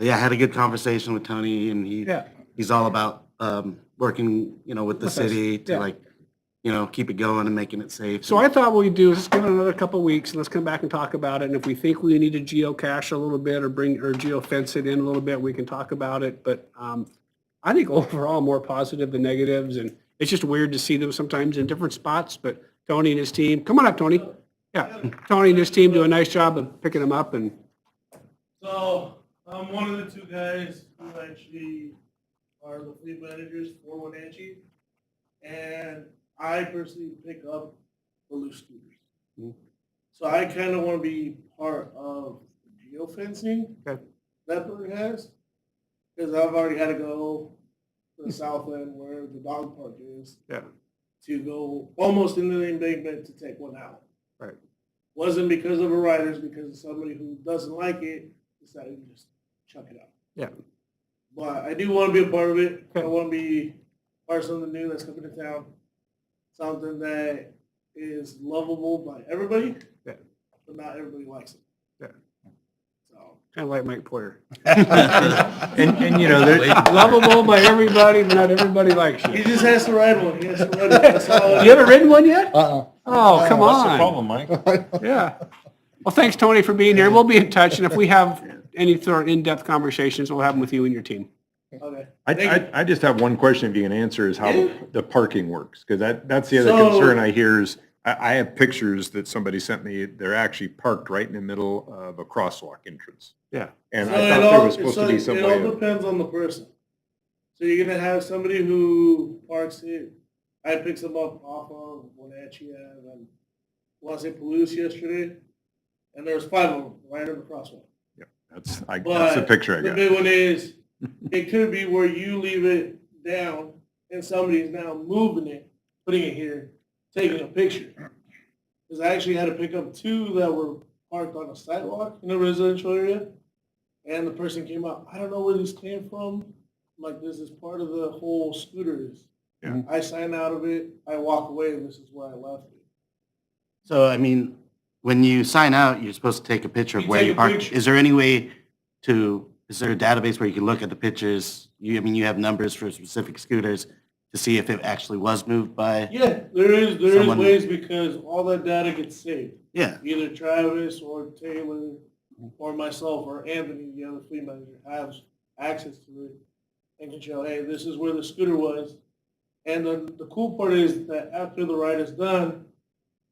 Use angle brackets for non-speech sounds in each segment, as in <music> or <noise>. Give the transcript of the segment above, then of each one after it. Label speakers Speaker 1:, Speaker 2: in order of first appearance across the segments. Speaker 1: yeah, I had a good conversation with Tony and he,
Speaker 2: Yeah.
Speaker 1: he's all about, um, working, you know, with the
Speaker 2: With us,
Speaker 1: city to
Speaker 2: yeah.
Speaker 1: like, you know, keep it going and making it safe.
Speaker 2: So I thought what we'd do is just give it another couple of weeks, and let's come back and talk about it, and if we think we need to geocache a little bit or bring, or geofence it in a little bit, we can talk about it, but um, I think <laughs> overall more positive than negatives, and it's just weird to see them sometimes in different spots, but Tony and his team, come on up, Tony. Yeah, Tony and his team do a nice job of picking them up, and
Speaker 3: So I'm one of the two guys who actually are the fleet managers for Wenatchee, and I personally pick up the loose scooters.
Speaker 2: Mhm.
Speaker 3: So I kind of want to be part of geofencing
Speaker 2: Okay.
Speaker 3: that Burger has, because I've already had to go to the south end where the dog park is
Speaker 2: Yeah.
Speaker 3: to go almost into the embankment to take one out.
Speaker 2: Right.
Speaker 3: Wasn't because of a rider, it's because of somebody who doesn't like it decided to just chuck it out.
Speaker 2: Yeah.
Speaker 3: But I do want to be a part of it. I
Speaker 2: Okay.
Speaker 3: want to be part of something new that's coming to town, something that is lovable by everybody,
Speaker 2: Yeah.
Speaker 3: but not everybody likes it.
Speaker 2: Yeah.
Speaker 3: So
Speaker 2: kind of like Mike Porter.
Speaker 4: <laughs> And, and you know, there,
Speaker 2: <laughs> Lovable by everybody, but not everybody likes
Speaker 3: he
Speaker 2: you.
Speaker 3: just has to ride one. He has to ride it.
Speaker 2: <laughs>
Speaker 3: That's all.
Speaker 2: You haven't ridden one yet?
Speaker 5: Uh-uh.
Speaker 2: Oh, come on.
Speaker 4: what's the problem,
Speaker 3: <laughs>
Speaker 4: Mike?
Speaker 2: Yeah. Well, thanks, Tony, for being here. We'll be in touch, and if we have any sort of in-depth conversations, we'll have them with you and your team.
Speaker 3: Okay.
Speaker 4: I,
Speaker 3: Thank you.
Speaker 4: I, I just have one question if you can answer is how the, the parking works, because that, that's the other
Speaker 3: So-
Speaker 4: concern I hear is, I, I have pictures that somebody sent me, they're actually parked right in the middle of a crosswalk entrance.
Speaker 2: Yeah.
Speaker 4: And
Speaker 3: So it
Speaker 4: I thought there
Speaker 3: all-
Speaker 4: was supposed to
Speaker 3: so
Speaker 4: be some
Speaker 3: It all
Speaker 4: way of,
Speaker 3: depends on the person. So you're gonna have somebody who parks it. I picked them up off of Wenatchee Ave and Los Angeles yesterday, and there was five of them right in the crosswalk.
Speaker 4: that's, I, that's the
Speaker 3: But
Speaker 4: picture I
Speaker 3: the
Speaker 4: got.
Speaker 3: big one is, it could be where you leave it down and somebody's now moving it, putting it here, taking a picture. Because I actually had to pick up two that were parked on a sidewalk in a residential area. And the person came up, I don't know where these came from. I'm like, this is part of the whole scooters.
Speaker 2: Yeah.
Speaker 3: I sign out of it, I walk away, and this is where I left it.
Speaker 1: So, I mean, when you sign out, you're supposed to take a picture of
Speaker 3: You
Speaker 1: where
Speaker 3: take
Speaker 1: you
Speaker 3: a
Speaker 1: park.
Speaker 3: picture.
Speaker 1: Is there any way to, is there a database where you can look at the pictures? You, I mean, you have numbers for specific scooters to see if it actually was moved by?
Speaker 3: Yeah, there is, there is
Speaker 1: Someone-
Speaker 3: ways because all that data gets saved.
Speaker 1: Yeah,
Speaker 3: either Travis or Taylor or myself or Anthony, the other fleet manager, have access to it and can show, hey, this is where the scooter was. And the, the cool part is that after the ride is done,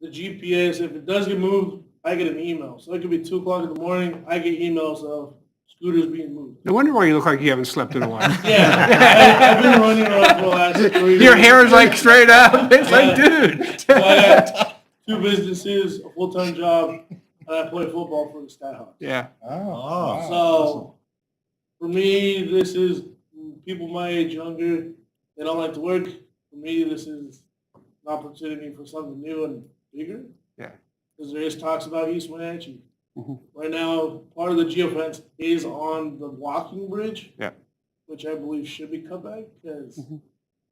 Speaker 3: the GPS, if it does get moved, I get an email. So it could be two o'clock in the morning, I get emails of scooters being moved.
Speaker 2: No wonder why you look like you haven't slept in a while.
Speaker 3: <laughs> Yeah, I, I've been running around for the last three
Speaker 2: <laughs> Your
Speaker 3: years.
Speaker 2: hair is like straight up. It's like, dude. <laughs>
Speaker 3: But Two businesses, a full-time job, and I play football for the Skyhawks.
Speaker 2: Yeah,
Speaker 5: Oh.
Speaker 3: So, for me, this is people my age, younger, they don't like to work. For me, this is an opportunity for something new and bigger.
Speaker 2: Yeah.
Speaker 3: Because there is talks about East Wenatchee.
Speaker 2: Mhm.
Speaker 3: Right now, part of the geofence is on the walking bridge.
Speaker 2: Yeah.
Speaker 3: Which I believe should be cut back because
Speaker 2: Mhm.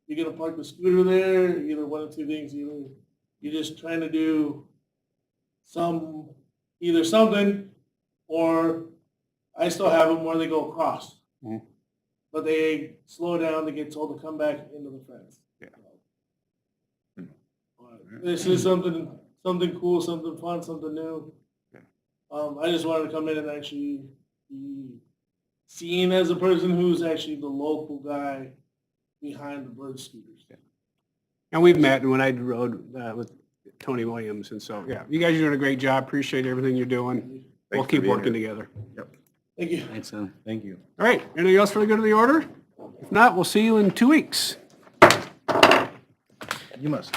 Speaker 3: you're gonna park the scooter there, either one of two things, either you're just trying to do some, either something or I still have them where they go across.
Speaker 2: Mhm.
Speaker 3: But they slow down, they get told to come back into the fence.
Speaker 2: Yeah. Hmm.
Speaker 3: But This is something, something cool, something fun, something new.
Speaker 2: Yeah.
Speaker 3: Um, I just wanted to come in and actually be seen as a person who's actually the local guy behind the bird scooters.
Speaker 2: and we've met, and when I rode uh, with Tony Williams, and so, yeah, you guys are doing a great job. Appreciate everything you're doing. We'll
Speaker 4: Thanks for
Speaker 2: keep
Speaker 4: being
Speaker 2: working together.
Speaker 3: Thank you.
Speaker 1: thanks, Ellen.
Speaker 4: Thank you.
Speaker 2: All right, anything else for the good of the order? If not, we'll see you in two weeks.
Speaker 5: You must.